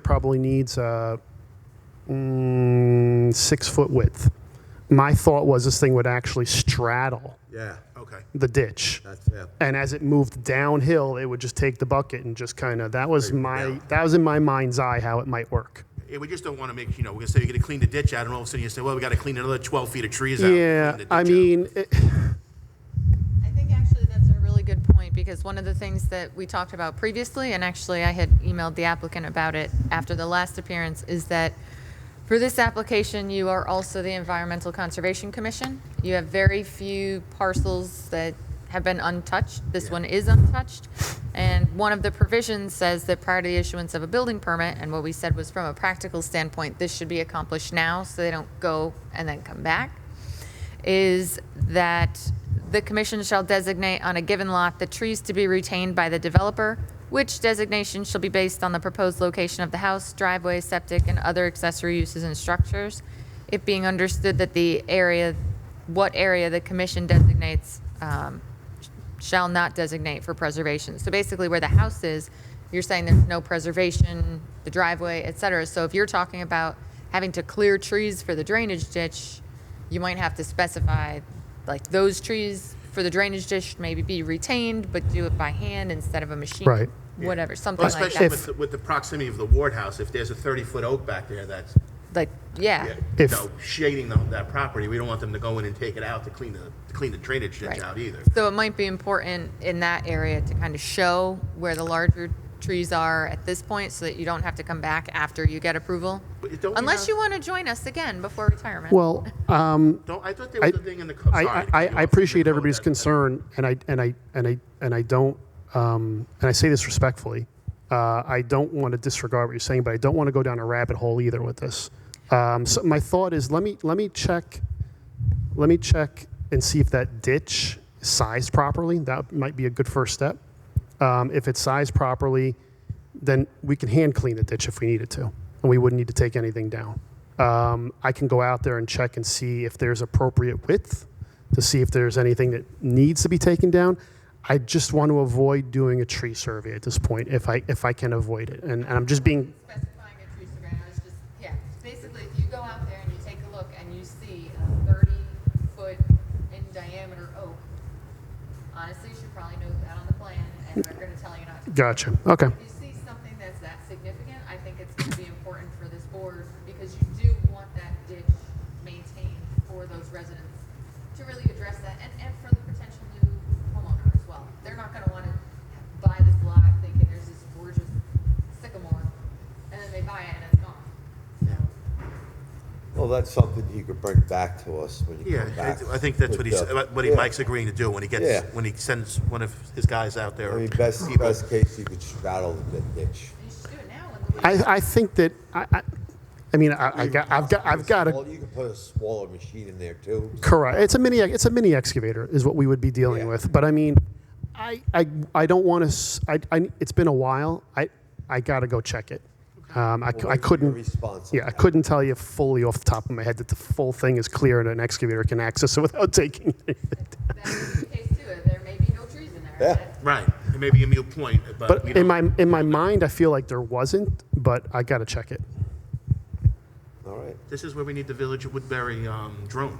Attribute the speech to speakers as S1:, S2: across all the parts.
S1: probably needs a mm, six foot width. My thought was this thing would actually straddle
S2: Yeah, okay.
S1: the ditch.
S2: That's, yeah.
S1: And as it moved downhill, it would just take the bucket and just kind of, that was my, that was in my mind's eye how it might work.
S2: Yeah, we just don't want to make, you know, we're going to say you're going to clean the ditch out, and all of a sudden you say, well, we got to clean another 12 feet of trees out. to
S1: Yeah,
S2: clean the ditch
S1: I
S2: out.
S1: mean, it-
S3: I think actually that's a really good point, because one of the things that we talked about previously, and actually I had emailed the applicant about it after the last appearance, is that for this application, you are also the Environmental Conservation Commission. You have very few parcels that have been untouched. This one is untouched. And one of the provisions says that prior to the issuance of a building permit, and what we said was from a practical standpoint, this should be accomplished now, so they don't go and then come back is that the commission shall designate on a given lot the trees to be retained by the developer, which designation shall be based on the proposed location of the house, driveway, septic, and other accessory uses and structures. It being understood that the area, what area the commission designates um, shall not designate for preservation. So basically where the house is, you're saying there's no preservation, the driveway, et cetera. So if you're talking about having to clear trees for the drainage ditch, you might have to specify, like, those trees for the drainage ditch maybe be retained, but do it by hand instead of a machine.
S1: Right.
S3: Whatever,
S2: Well,
S3: something like
S2: Especially
S3: that.
S2: with, the- with the proximity of the Ward House, if there's a 30-foot oak back there that's,
S3: Like,
S2: yeah,
S3: yeah,
S2: you
S1: If-
S2: know, shading the- that property, we don't want them to go in and take it out to clean the, to clean the drainage ditch
S3: Right.
S2: out either.
S3: So it might be important in that area to kind of show where the larger trees are at this point so that you don't have to come back after you get approval.
S2: But don't we
S3: Unless
S2: have-
S3: you want to join us again before retirement.
S1: well, um,
S2: Don't, I thought there was a thing in the code.
S1: I, I, I- I appreciate everybody's concern, and I, and I, and I, and I don't, um, and I say this respectfully. Uh, I don't want to disregard what you're saying, but I don't want to go down a rabbit hole either with this. Um, so my thought is, let me, let me check, let me check and see if that ditch is sized properly. That might be a good first step. Um, if it's sized properly, then we can hand clean the ditch if we needed to, and we wouldn't need to take anything down. Um, I can go out there and check and see if there's appropriate width to see if there's anything that needs to be taken down. I just want to avoid doing a tree survey at this point if I if I can avoid it, and, and I'm just being
S3: specifying a tree survey, I was just, yeah, basically, if you go out there and you take a look and you see a thirty-foot in diameter oak, honestly, you should probably know that on the plan, and they're gonna tell you not to.
S1: gotcha. Okay,
S3: If you see something that's that significant, I think it's gonna be important for this board, because you do want that ditch maintained for those residents to really address that, and, and for the potential new homeowner as well. They're not gonna wanna buy this lot thinking there's this gorgeous sycamore, and then they buy it and it's gone. So,
S4: Well, that's something you could bring back to us when you
S2: Yeah,
S4: come back.
S2: I- I think that's what
S4: with
S2: he's,
S4: the-
S2: what he,
S4: Yeah.
S2: Mike's agreeing to do when he
S4: Yeah.
S2: gets, when he sends one of his guys out there.
S4: I
S2: or
S4: mean, best,
S2: people.
S4: best case, you could straddle the ditch.
S3: you should do it now when the leaves
S1: I, I think that I, I, I mean I, I got I've got I've got a
S4: Well, You could put a smaller machine in there too.
S1: Correct. It's a mini. It's a mini excavator, is what we would be dealing
S4: Yeah.
S1: with. But I mean, I I, I don't want to. I, I it's been a while. I I gotta go check it. Um, I, cou- I
S4: Well, your
S1: couldn't.
S4: response on
S1: Yeah, I
S4: that.
S1: couldn't tell you fully off the top of my head that the full thing is clear and an excavator can access it without taking. It.
S3: that is the case too, there may be no trees in there.
S4: Yeah.
S3: That-
S2: Right, it may be a mute point, but
S1: But
S2: we
S1: in
S2: don't,
S1: my in my mind, I feel like there wasn't. But I gotta check it.
S4: All right.
S2: this is where we need the Village of Woodbury um, drone.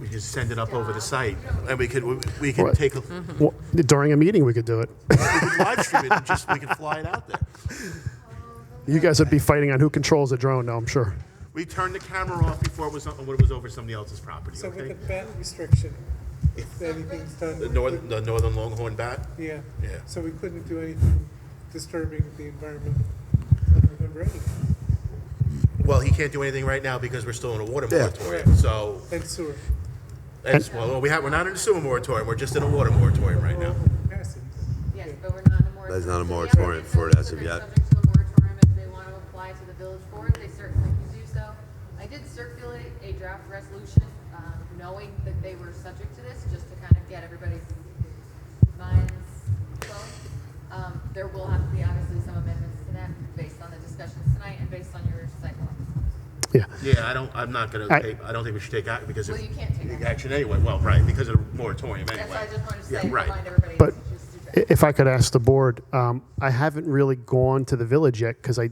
S2: We just send it up over the site, and we could, we- we could
S1: Right.
S2: take, a
S1: Well, during a meeting, we could do it.
S2: live stream it, and just, we can fly it out there.
S1: You guys would be fighting on who controls the drone, now I'm sure.
S2: We turned the camera off before it was, on- when it was over somebody else's property,
S5: So with
S2: okay?
S5: the bat restriction, if anything's done.
S2: The northern, the northern longhorn bat?
S5: Yeah.
S2: Yeah.
S5: So we couldn't do anything disturbing the environment under the rain.
S2: Well, he can't do anything right now because we're still in a water
S4: Yeah.
S2: moratorium, so,
S5: and sewer.
S2: that's, well, we have, we're not in a sewer moratorium, we're just in a water moratorium right now.
S5: Capacity.
S3: Yes, but we're not in a moratorium.
S6: There's not a
S3: So the
S6: moratorium
S3: applicant
S6: for it
S3: knows
S6: as
S3: that
S6: of
S3: they're
S6: yet.
S3: Subject to the moratorium, if they want to apply to the village board, they certainly can do so. I did circulate a draft resolution, um, knowing that they were subject to this, just to kind of get everybody's minds flowing. Um, there will have to be obviously some amendments to that, based on the discussions tonight and based on your site walk.
S1: Yeah.
S2: Yeah, I don't, I'm not gonna,
S1: I-
S2: take- I don't think we should take action, because
S3: Well,
S2: if-
S3: you can't take action.
S2: action anyway, well, right, because of the moratorium anyway.
S3: That's why I just wanted to
S2: Yeah,
S3: say,
S2: right.
S3: remind everybody.
S1: But
S3: to just do that.
S1: i- if I could ask the board, um, I haven't really gone to the village yet because I